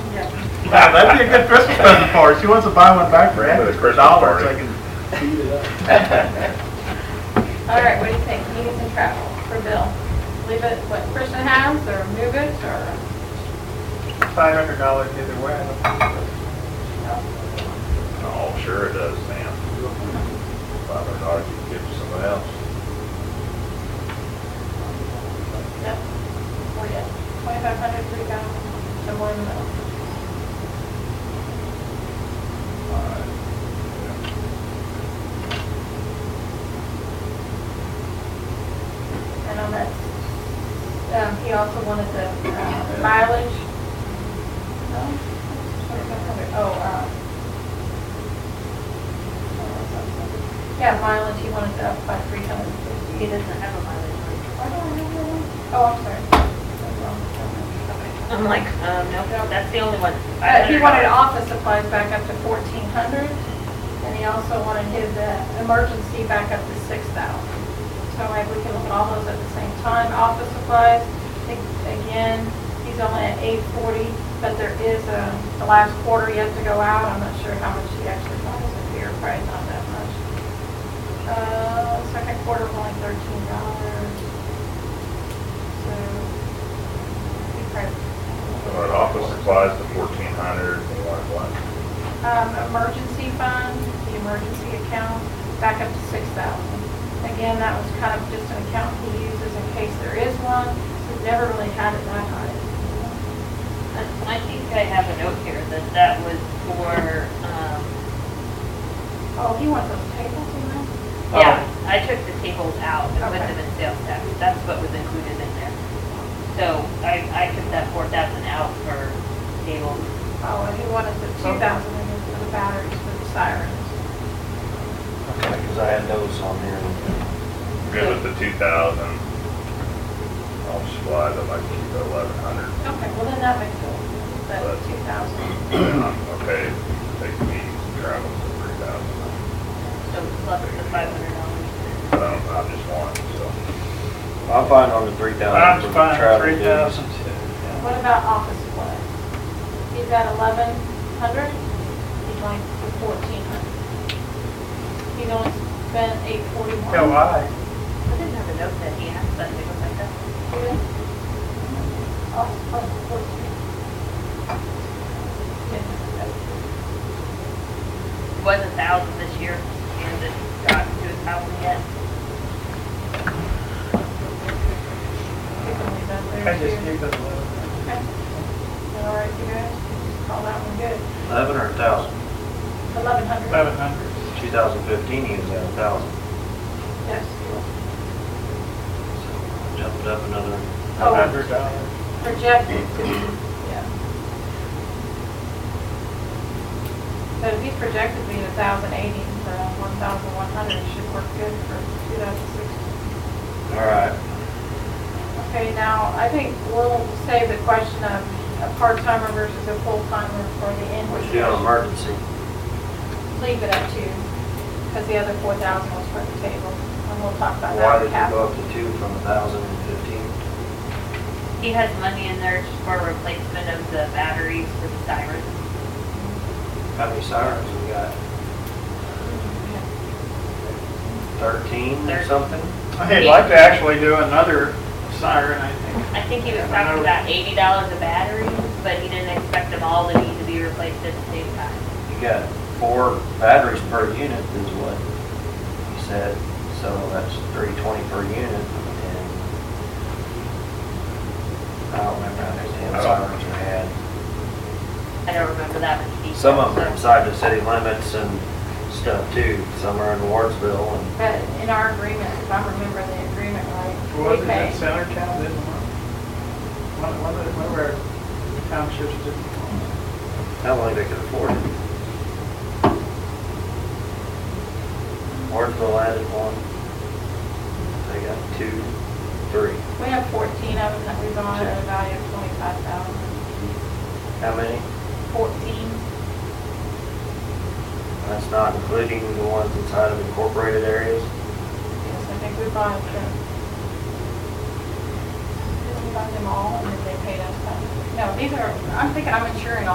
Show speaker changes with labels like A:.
A: Yeah, that'd be a good Christmas present for her. She wants to buy one back for Andy for a dollar, so I can feed it up.
B: All right, what do you think, meetings and travel for Bill? Leave it, what, Christian House or move it or?
A: Five hundred dollars either way. I don't think
C: Oh, sure it does, Sam. Five hundred dollars you can give to somebody else.
B: Yep. Oh, yeah. Twenty-five hundred, three thousand, somewhere in the middle. And on that, um, he also wanted the uh, mileage. No? Twenty-five hundred, oh, uh. Yeah, mileage, he wanted to up by three hundred and fifty.
D: He doesn't have a mileage.
B: Why do I have that one? Oh, I'm sorry. That's wrong. Okay.
D: I'm like, um, no, that's the only one.
B: Uh, He wanted office supplies back up to fourteen hundred, and he also wanted his uh, emergency back up to six thousand. So maybe we can look at all those at the same time. Office supplies, I think, again, he's only at eight forty, but there is a, the last quarter yet to go out. I'm not sure how much he actually buys up here, probably not that much. Uh, second quarter, only thirteen dollars. So, he probably.
C: So our office supplies to fourteen hundred, they want what?
B: um, emergency fund, the emergency account, back up to six thousand. Again, that was kind of just an account he uses in case there is one. We've never really had it that high.
D: I think I have a note here that that was for, um,
B: Oh, he wants those tables, you know?
D: yeah, I took the tables out and put
B: Oh. Okay.
D: them in sales tax. That's what was included in there. So I, I took that four thousand out for tables.
B: Oh, and he wanted the two thousand in it for the batteries for the sirens.
E: Okay, because I had those on there.
C: Good with the two thousand. Office supplies, I'd like to keep it eleven hundred.
B: Okay, well then that makes sense, the two thousand.
C: Okay, take the meetings and travel to three thousand.
D: So plus the five hundred dollars.
C: I don't, I just want, so.
E: I'm fine on the three thousand.
A: I'm fine, three thousand too. yeah.
B: What about office supplies? He's got eleven hundred, he's going for fourteen hundred. He's only spent eight forty-one.
A: Hell, I,
D: I didn't have a note that he asked, but it was like that. It was a thousand this year and it got to a thousand yet.
A: I just keep it low.
B: All right, you guys, call that one good.
E: Eleven or a thousand?
B: Eleven hundred.
A: Eleven hundred.
E: Two thousand fifteen, he was at a thousand.
B: Yes.
E: So Jumped up another.
B: Oh.
A: Hundred dollars.
B: Projected to be, yeah. So if he's projected to be a thousand eighty, so one thousand one hundred should work good for two thousand sixteen.
E: All right.
B: Okay, now, I think we'll save the question of a part-timer versus a full-timer for the end.
E: What you doing on emergency?
B: Leave it up to, because the other four thousand was for the table, and we'll talk about
E: Why
B: that.
E: did
B: in
E: you go
B: capital.
E: up to two from a thousand and fifteen?
D: He has money in there for replacement of the batteries for the sirens.
E: How many sirens we got? Thirteen or
D: Thirteen.
E: something?
A: I'd like to actually do another siren, I think.
D: I think he was talking about eighty dollars a battery, but he didn't expect them all to need to be replaced at the same time.
E: You got four batteries per unit is what you said, so that's three twenty per unit and I don't remember how many damn sirens we had.
D: I don't remember that much detail.
E: Some of them are
D: so-
E: inside the city limits and stuff too, some are in Wardsville and
B: But in our agreement, if I remember the agreement right,
A: Was
B: we
A: it
B: pay,
A: in Center Town, didn't it? One, one of, the- one of our townships didn't.
E: I don't think they could afford it. Wardsville added one, they got two, three,
B: we have fourteen of them that we bought at a value of twenty-five thousand.
E: how many?
B: Fourteen,
E: That's not including the ones inside of incorporated areas.
B: yes, I think we bought them. Didn't we buy them all and then they paid us that? No, these are, I'm thinking I'm insuring all